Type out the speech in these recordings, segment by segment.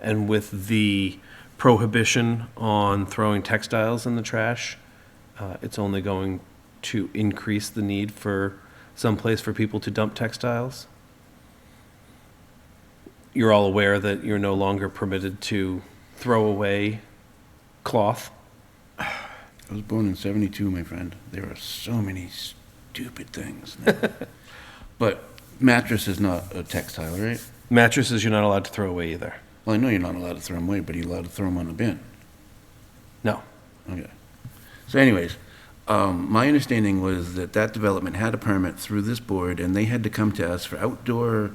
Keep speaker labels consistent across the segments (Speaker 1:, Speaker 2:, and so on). Speaker 1: and with the prohibition on throwing textiles in the trash, uh, it's only going to increase the need for some place for people to dump textiles. You're all aware that you're no longer permitted to throw away cloth.
Speaker 2: I was born in 72, my friend. There are so many stupid things. now. but mattress is not a textile, right?
Speaker 1: Mattresses, you're not allowed to throw away either.
Speaker 2: Well, I know you're not allowed to throw them away, but you're allowed to throw them on a bin.
Speaker 1: No.
Speaker 2: Okay. So anyways, um, my understanding was that that development had a permit through this board, and they had to come to us for outdoor,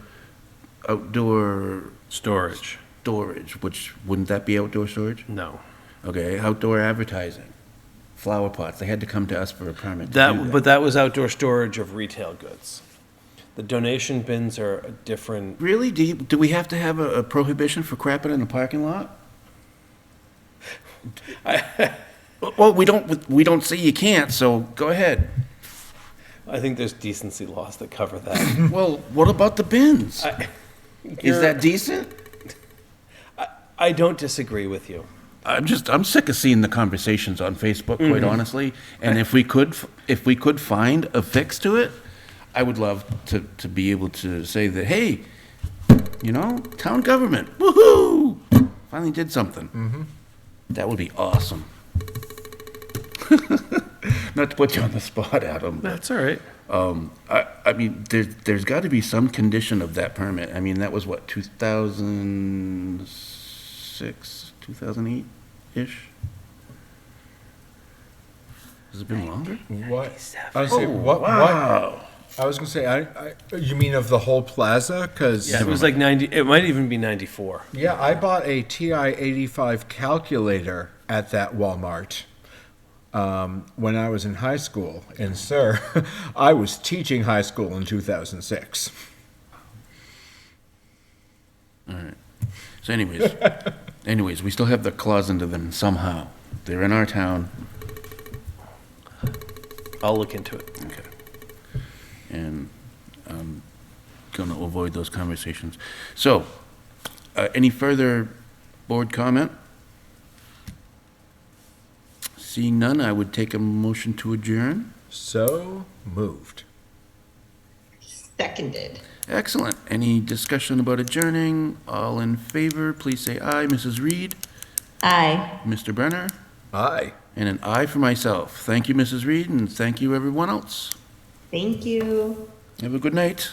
Speaker 2: outdoor
Speaker 1: Storage?
Speaker 2: storage, which, wouldn't that be outdoor storage?
Speaker 1: No.
Speaker 2: Okay, outdoor advertising, flower pots, they had to come to us for a permit to do
Speaker 1: That, but that was outdoor storage of retail goods. The donation bins are a different,
Speaker 2: Really? Do, you, do we have to have a, a prohibition for crapping in the parking lot? well, we don't. We don't say you can't. So go ahead.
Speaker 1: I think there's decency laws that cover that.
Speaker 2: well, what about the bins?
Speaker 1: I-
Speaker 2: Is that decent?
Speaker 1: I don't disagree with you.
Speaker 2: I'm just. I'm sick of seeing the conversations on Facebook. Quite honestly, and if we could, f- if we could find a fix to it, I would love to to be able to say that. Hey, you know, town government, woohoo! Finally did something. That would be awesome. Not to put you on the spot, Adam. but,
Speaker 1: all right.
Speaker 2: Um, I, I mean, there, there's got to be some condition of that permit. I mean, that was what, 2006, 2008-ish? Has it been longer?
Speaker 3: What? I was gonna say, what, what?
Speaker 2: Wow.
Speaker 3: I was gonna say, I, I, you mean of the whole plaza? Cause,
Speaker 1: Yeah, it was like 90, it might even be 94.
Speaker 3: yeah, I bought a TI eighty-five calculator at that Walmart. Um, when I was in high school, and sir, I was teaching high school in two thousand six.
Speaker 2: So anyways, anyways, we still have the claws into them somehow. They're in our town.
Speaker 1: I'll look into it.
Speaker 2: Okay. And I'm going to avoid those conversations. So, uh, any further board comment? Seeing none, I would take a motion to adjourn.
Speaker 3: So moved.
Speaker 4: Seconded.
Speaker 2: Excellent. Any discussion about adjourning? All in favor, please say aye. Mrs. Reed,
Speaker 4: Aye.
Speaker 2: Mr. Brenner,
Speaker 3: Aye.
Speaker 2: and an aye for myself. Thank you, Mrs. Reed, and thank you, everyone else.
Speaker 4: Thank you.
Speaker 2: Have a good night.